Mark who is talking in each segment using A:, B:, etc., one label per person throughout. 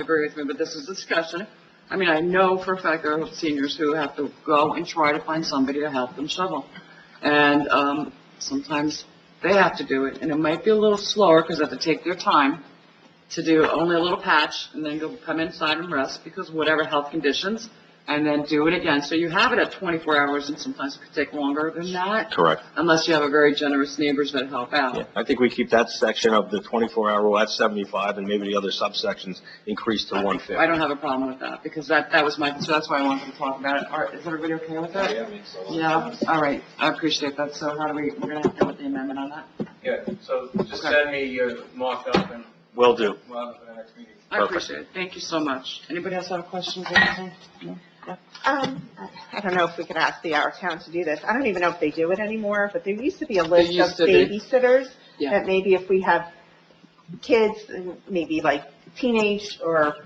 A: agree with me, but this is discussion. I mean, I know for a fact there are seniors who have to go and try to find somebody to help them shovel. And, um, sometimes they have to do it, and it might be a little slower, because they have to take their time to do only a little patch, and then go come inside and rest, because whatever health conditions, and then do it again. So you have it at twenty-four hours, and sometimes it could take longer than that,
B: Correct.
A: unless you have a very generous neighbors that help
B: Yeah,
A: out.
B: I think we keep that section of the 24-hour rule at 75, and maybe the other subsections increase to
A: I
B: 150.
A: don't have a problem with that, because that, that was my, so that's why I wanted to talk about it. All right, is everybody okay with that? Yeah, all right, I appreciate that, so how do we, we're gonna have to deal with the amendment on that?
C: Yeah, so just send me your mock-up and
B: Will do.
C: we'll have it for the next meeting.
A: I
B: Perfect.
A: appreciate it, thank you so much. Anybody else have questions or anything? No?
D: Um, I don't know if we could ask the Our Town to do this. I don't even know if they do it anymore, but there used to be a list
A: used to
D: of
A: be.
D: babysitters
A: Yeah,
D: that maybe if we have kids, and maybe like teenage or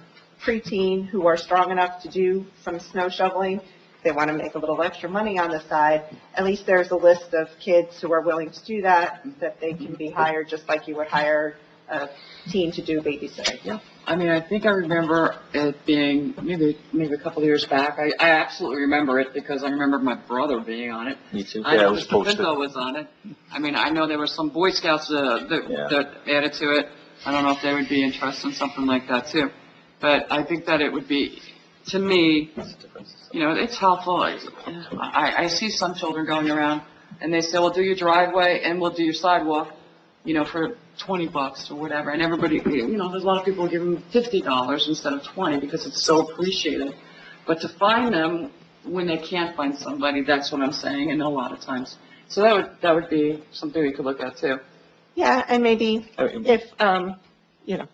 D: preteen who are strong enough to do some snow shoveling, they want to make a little extra money on the side, at least there's a list of kids who are willing to do that, that they can be hired, just like you would hire a teen to do babysitting.
A: I mean, I think I remember it being, maybe, maybe a couple of years back, I, I absolutely remember it, because I remember my brother being on it.
B: Me too.
A: I
B: Yeah, it
A: know
B: was
A: Mr.
B: posted.
A: Pinto was on it. I mean, I know there were some Boy Scouts uh,
B: Yeah.
A: that that added to it. I don't know if they would be interested in something like that too. But I think that it would be, to me, you know, it's helpful. I, I I see some children going around and they say, well, do your driveway and we'll do your sidewalk, you know, for 20 bucks or whatever. And everybody, you know, there's a lot of people giving $50 instead of 20 because it's so appreciated. But to find them when they can't find somebody, that's what I'm saying, and a lot of times. So that would, that would be something we could look at too.
D: Yeah, and maybe
B: I mean,
D: if, um, you know,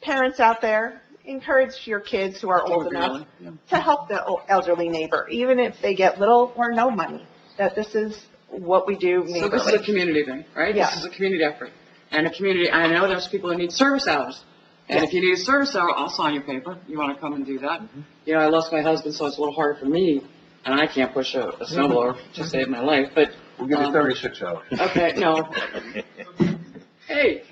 D: parents out there, encourage your kids who are
A: Oh,
D: old enough
A: Yeah.
D: to help the o- elderly neighbor, even if they get little or no money, that this is what we do
A: So this is a
D: neighborly.
A: community thing, right?
D: Yeah.
A: This is a community effort. And a community, I know there's people that need service hours. And if you need a service hour, I'll sign your paper. You want to come and do that? You know, I lost my husband, so it's a little hard for me, and I can't push a, a snowblower to save my life, but,
E: We'll give
A: Um,
E: you thirty-six hours.
A: okay, no. Hey,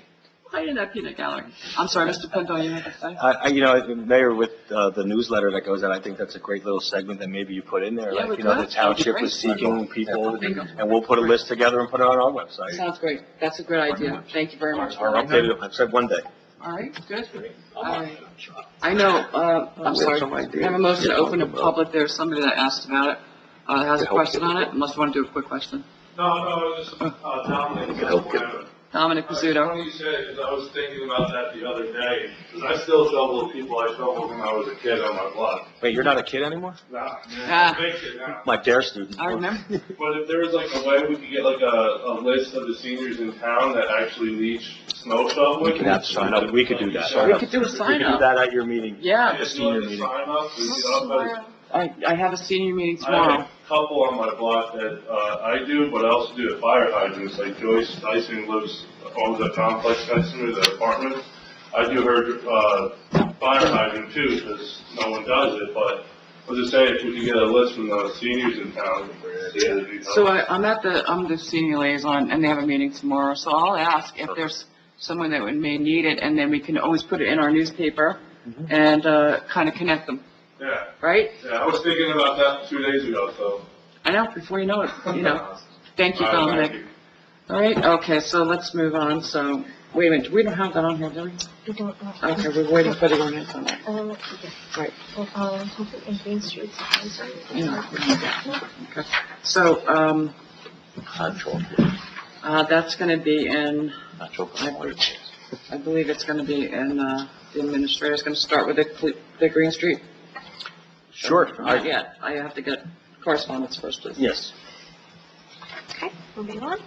A: why in that peanut gallery? I'm sorry, Mr. Pinto, you have to say?
E: Uh,
B: I, I, you know, Mayor, with, uh, the newsletter that goes out, I think that's a great little segment that maybe you put in there.
A: Yeah, we
B: Like, you know, the
A: could. That would be
B: township is
A: great.
B: seeking people,
A: Bingo.
B: and we'll put a list together and put it on our website.
A: Sounds great. That's a good idea. Thank you very much.
B: Or updated, I said one day.
A: All right, good. All right. I know, uh, I'm
E: have
A: sorry,
E: some
A: I
E: ideas.
A: have a motion to open to public, there's somebody that asked about it, uh, has a
E: To help
A: question on it, unless you want to do a quick question.
F: No, no, it was just, uh, Dominic.
E: Help get them.
A: Dominic Pizzuto.
F: Funny you said it, 'cause I was thinking about that the other day, 'cause I still shovel the people I shoveled when I was a kid on my block.
B: Wait, you're not a kid anymore?
F: Nah,
A: Ah.
F: man, fix it now.
B: My dare student.
A: I remember,
F: But if there was like a way we could get like a, a list of the seniors in town that actually leach snow shoveling.
B: We could have sign up. We could do that.
A: we could do a
B: You could
A: sign
B: do
A: up.
B: that at your meeting.
A: Yeah,
F: If
B: The
F: you
B: senior
F: wanted to
B: meeting.
F: sign up, we could up by the
A: I, I have a senior meeting
F: I have
A: tomorrow.
F: a couple on my block that, uh, I do, but I also do the fire hydrants, like Joyce Dyson lives, owns a complex next to me, the apartment. I do her, uh, fire hydrant too, because no one does it, but I was just saying, if we could get a list from the seniors in town. see if we-
A: So I, I'm at the, I'm the senior liaison, and they have a meeting tomorrow, so I'll ask if there's someone that would- may need it, and then we can always put it in our newspaper
F: Mm-hmm.
A: and, uh, kind of connect them,
F: Yeah,
A: right?
F: yeah, I was thinking about that two days ago, so.
A: I know, before you know it, you know. Thank you,
F: All right,
A: Dominic. All right, okay, so let's move on, so, wait a minute, we don't have that on here, do we?
G: We don't know.
A: Okay, we're waiting for the ordinance on that.
G: Um, okay.
A: Right.
G: Um, Hopefully in Green Streets. I'm sorry.
A: You know, we don't have that. Okay. So, um,
E: Natural,
A: uh, that's gonna be in,
E: natural.
A: I believe it's gonna be in, uh, the administrator's gonna start with the, cle- the Green Street.
B: Sure. I-
A: Not yet, I have to get correspondence first, please.
B: Yes.
G: Okay, moving on.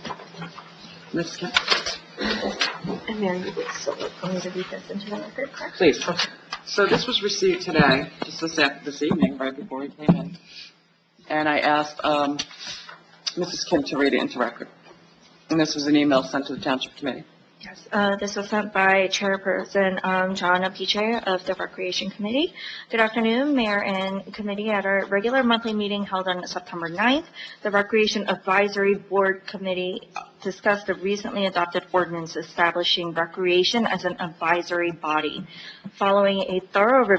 A: Ms. Kim,
G: And Mary Wood Silver, I'm going to read this into the record, correct?
A: please. So this was received today, just this after, this evening, right before we came in. And I asked, um, Mrs. Kim to read it into record. And this was an email sent to the township committee.
G: Yes, uh, this was sent by Chairperson um, John Apiche of the Recreation Committee. Good afternoon, Mayor and Committee. At our regular monthly meeting held on September 9th, the Recreation Advisory Board Committee discussed the recently adopted ordinance establishing recreation as an advisory body. Following a thorough review